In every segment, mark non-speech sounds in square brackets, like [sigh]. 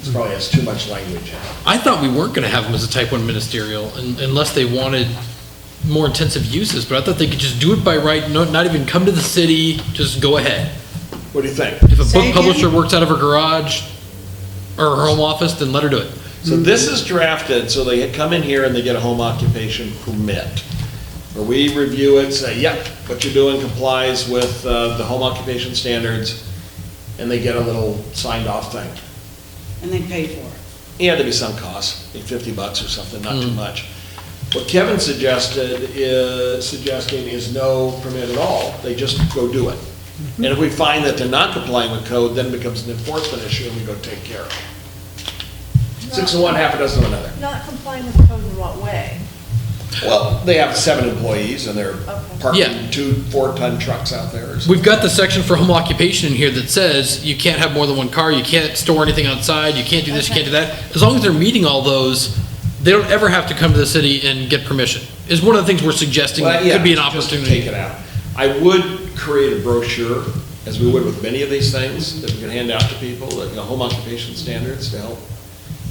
This probably has too much language in it. I thought we weren't going to have them as a type one ministerial un- unless they wanted more intensive uses, but I thought they could just do it by right, no- not even come to the city, just go ahead. What do you think? If a Say book again? publisher works out of her garage or her home office, then let her do it. So this is drafted, so they come in here and they get a home occupation permit. Where we review it, say, yep, what you're doing complies with uh, the home occupation standards, and they get a little signed off thing. and they pay for it. Yeah, there'd be some cost, like fifty bucks or something, not Hmm. too much. What Kevin suggested is, suggesting is no permit at all, they just go do it. And if we find that they're not complying with code, then it becomes an enforcement issue and we go take care of it. Six of one, half a dozen of another. Not complying with code in what way? Well, they have seven employees and they're Yeah. parking two four-ton trucks out there or something. We've got the section for home occupation in here that says you can't have more than one car, you can't store anything outside, you can't do this, you can't do that. As long as they're meeting all those, they don't ever have to come to the city and get permission. Is one of the things we're suggesting Well, yeah, could be an just opportunity. Take it out. I would create a brochure, as we would with many of these things, that we could hand out to people, that, you know, home occupation standards to help,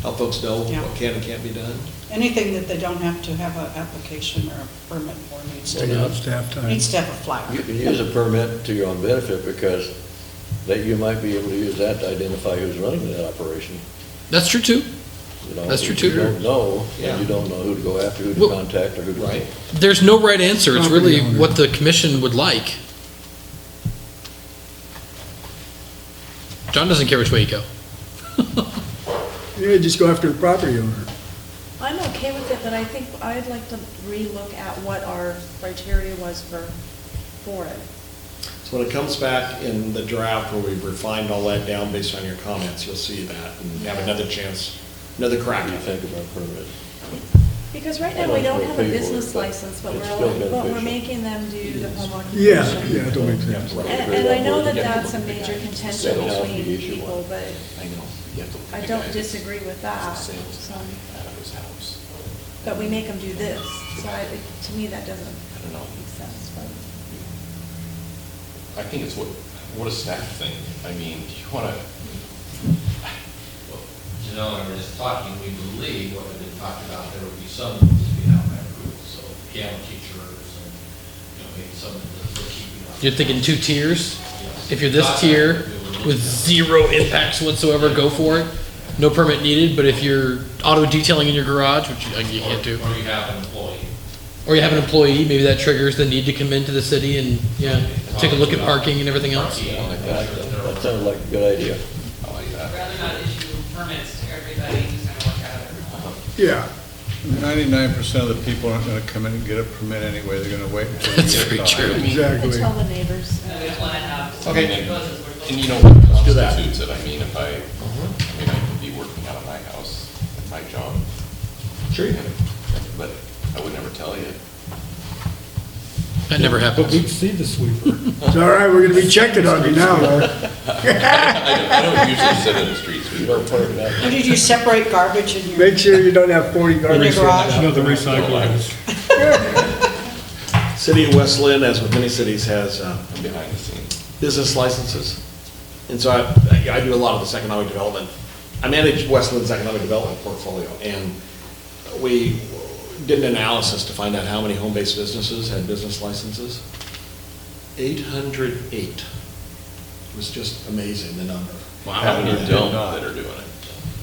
help folks know Yeah. what can and can't be done. Anything that they don't have to have an application or a permit for needs to, Take out staff time. needs to have a flyer. You can use a permit to your own benefit because that you might be able to use that to identify who's running that operation, That's true too. you know? That's true, If you too. don't know, Yeah. and you don't know who to go after, who Well- to contact, or who to. Right. There's no right answer. It's Property really owner. what the commission would like. John doesn't care which way you go. Yeah, just go after the property owner. I'm okay with it, but I think I'd like to relook at what our criteria was for, for it. So when it comes back in the draft where we've refined all that down based on your comments, you'll see that and have another chance, another crack What do you at it. think about permits? Because right now, we don't have a business license, but It's we're, still but we're beneficial. making them do the home Yeah, occupation. yeah, it don't make sense. And, and I know that that's a major contention Settle out the between issue. people, but I know. You have to look I at the don't guy disagree with Ah. that, that's the sales so, guy Out of his house. but we make them do this, so I, it- to me, that doesn't I don't know. make sense, but. I think it's what, what a staff thing. I mean, do you want to, Well, You know, and we're just talking, we believe what we've been talking about, there would be some that would be out by rule, so piano teachers and, you know, maybe some of the bookkeeping. You're thinking two tiers? If you're this tier with zero impacts whatsoever, go for it. No permit needed, but if you're auto detailing in your garage, which you- like, you can't do, Or you have an employee. or you have an employee, maybe that triggers the need to come into the city and, yeah, take a look at parking and everything else. Parking, Something like I'm sure that. there are- That sounds like a good idea. I like I'd that. rather not issue permits to everybody, just kind of work out of their own. Yeah. Ninety-nine percent of the people aren't gonna come in and get a permit anyway, they're gonna wait until. you That's get very caught. true. Exactly. Tell the neighbors. And we don't want to have. Okay. Because we're looking- And you know what do that. constitutes it? I mean, if I, I mean, I could be working out of my house at my job. Sure you can. But I would never tell you. That never happens. see the sweeper. It's all right, we're gonna be checking on you now, [laughs] Laura. I don't- I don't usually sit in the streets. You don't park it out. Or did you separate garbage in your? Make sure you don't have forty garbage. garage. cans. the recycling. City of West Lynn, as with many cities, has, uh, I'm behind the scenes. business licenses. And so I, I do a lot of this economic development. I manage Westland's economic development portfolio, and we did an analysis to find out how many home-based businesses had business licenses. Eight hundred eight. It was just amazing, the number. How many Yeah. don't that are doing it?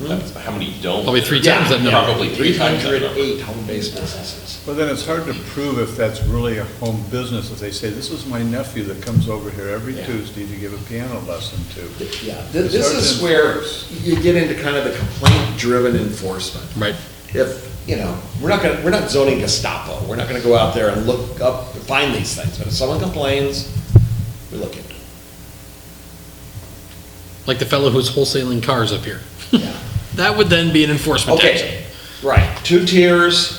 That's- How many don't? Probably three times that number. Probably three times that Eight number. hundred eight home-based businesses. Well, then it's hard to prove if that's really a home business, if they say, this is my nephew that comes over here every Yeah. Tuesday to give a piano lesson to. Yeah, th- It's this hard to is where enforce. you get into kind of the complaint-driven enforcement. Right. if, you know, we're not gonna, we're not zoning Gestapo, we're not gonna go out there and look up, find these things, but if someone complains, we look into it. Like the fellow who's wholesaling cars up here. Yeah. That would then be an enforcement action. Okay, right, two tiers,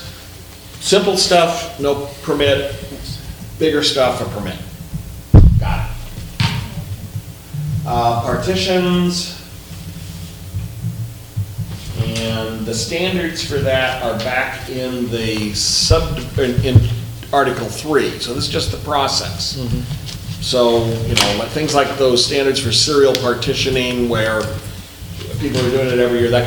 simple stuff, no permit, bigger stuff, a permit. Got it. Uh, partitions. And the standards for that are back in the sub, in, in Article Three, so this is just the process. So, you know, like, things like those standards for serial partitioning where people are doing it every year, that